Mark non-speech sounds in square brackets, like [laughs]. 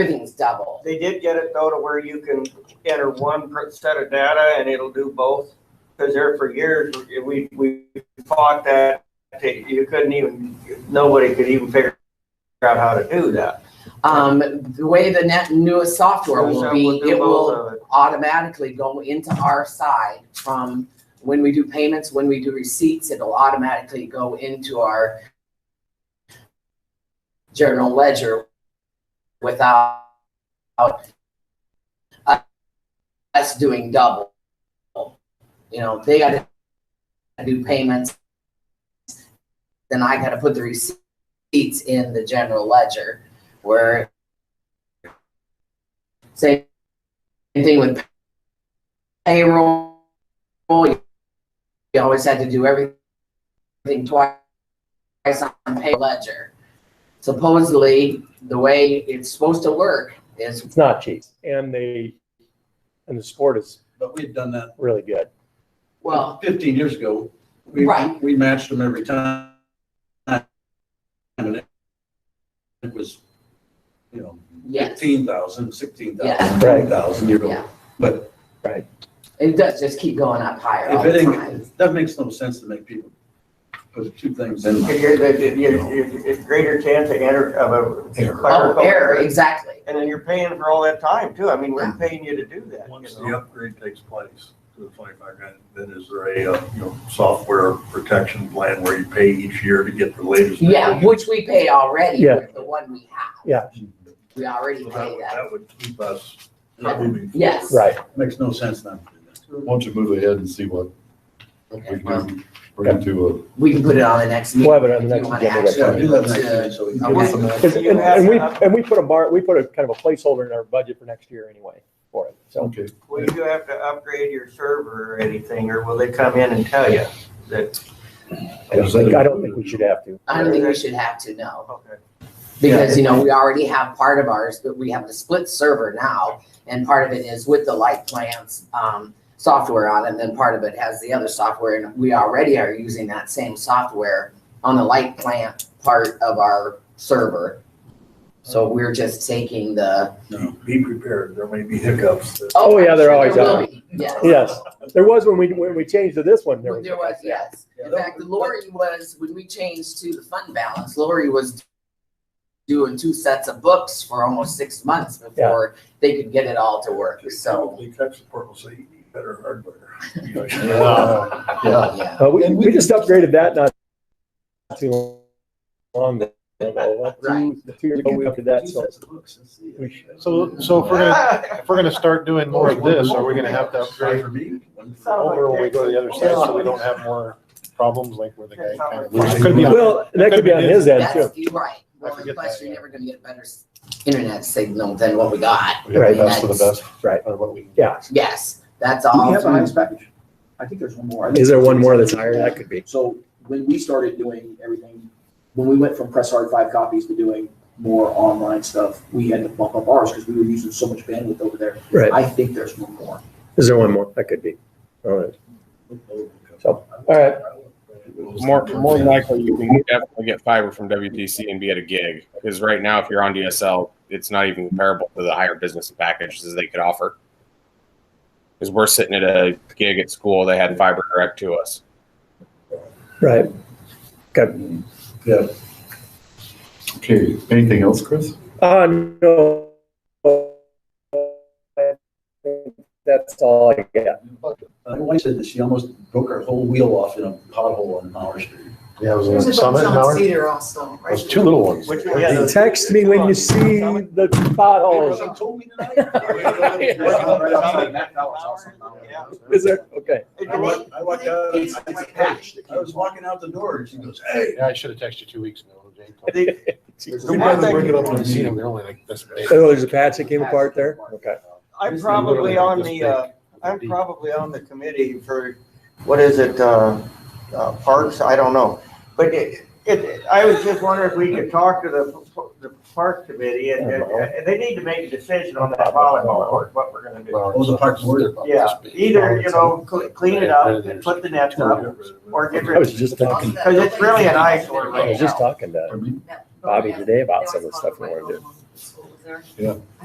everything's double. They did get it though to where you can enter one per- set of data and it'll do both. Cause there for years, we, we fought that, that you couldn't even, nobody could even figure out how to do that. Um, the way the net newest software will So be, we'll do it will both of it. automatically go into our side from when we do payments, when we do receipts, it'll automatically go into our general ledger without without us doing double. You know, they gotta do payments, then I gotta put the receipts in the general ledger where same same thing with payroll. You always had to do everything twice on pay ledger. Supposedly, the way it's supposed to work is It's not cheap and they, and the sport is But we had done that really good. well, fifteen years ago. We, Right. we matched them every time. And it it was, you know, yes, fifteen thousand, sixteen Yeah. thousand, twenty thousand, you Yeah. know. But it does just keep going up higher all if the it time. ain't, that makes no sense to make people put two things in. You- you- you- you- you- Greater chance of enter, of a Error. Oh, clerical error, error. exactly. And then you're paying for all that time too. I mean, Yeah. we're paying you to do that. you Once know? the upgrade takes place to the twenty-five grand, then is there a, uh, you know, software protection plan where you pay each year to get the latest? Yeah, version? which we pay already Yeah. with the one we have. Yeah. We already So that pay would, that. that would keep us moving. forward. Yes. Right. Makes no sense not to do that. Why don't you move ahead and see what we Okay, well, can bring to We can put it on the next meeting. We'll have it on the if next you want agenda. Yeah, do that action next to- time, so we a. can Okay. get give us some some action. And, and- and we, and we put a bar, we put a kind of a placeholder in our budget for next year anyway for it. So Okay, Well, you have to upgrade your server or anything, or will they come in and tell you that? I don't think, I don't think we should have to. I don't think we should have to, no. Okay. Because, you know, we already have part of ours, but we have the split server now, and part of it is with the light plants, um, software on it, and then part of it has the other software, and we already are using that same software on the light plant part of our server. So we're just taking the. Be- Be prepared, there may be hiccups. that- Oh, yeah, they're there always will are. be, Yes, Yes, there was when we, when we changed to this one, there was. there was, yes. In fact, Lori was, when we changed to the fund balance, Lori was doing two sets of books for almost six months before they could get it all to work, so. Probably tech support will say you need better [laughs] hardware. You know, you know. Yeah. yeah, Yeah, Uh, we, And we we just can- upgraded that not too long ago. Right. Two two years ago, we upgraded that, Two so. sets of books, let's see. we- So, so if we're gonna, [laughs] if we're gonna start doing more of this, are we gonna have to upgrade For me, one for- over when we go to the other side so we don't have more problems like where the guy kind of? Could be on- Well, that could be on his end that's, too. you're right. Well, forget plus that, you're yeah. never gonna get a better s- internet signal than what we got. we have Right. the best of the best. Right. On what we can. Yeah. Yes, that's Do all. we have the through- highest package? I think there's one more. I think- Is there one more that's higher? That could be. So when we started doing everything, when we went from press hard five copies to doing more online stuff, we had to bump up ours because we were using so much bandwidth over there. Right. I think there's one more. Is there one more? That could be. All right. So, all right. More, more than likely, you can definitely get fiber from WTC and be at a gig. Because right now, if you're on DSL, it's not even comparable to the higher business packages they could offer. Because we're sitting at a gig at school, they had fiber direct to us. Right. Okay, anything else, Chris? Uh, no. That's all I got. My wife said that she almost broke her whole wheel off in a pothole on Mauer Street. Yeah, it was on Summit Howard. There's two little ones. Which- yeah, those- Text me when you see the potholes. She told me tonight. Yeah. Is there? Okay. I walked, I walked out, it's a patch. I was walking out the door and she goes, hey. Yeah, I should have texted you two weeks ago. Jane told me. The- We one probably thing- bring it up on the scene, we're only like this big. Oh, there's a patch that came apart there? Okay. I'm probably on the, uh, I'm probably on the committee for, what is it, uh, uh, parks? I don't know. But it, it, I was just wondering if we could talk to the, the park committee and, and- and they need to make a decision on that volleyball court, what we're gonna do. Well, Those are parts where- they're about this Yeah, big. either, you know, cle- clean it up and put the nets up or get I rid, was just talking, because it's really an eyesore I right was just now. talking to Bobby today about some of the stuff we wanted to do. there.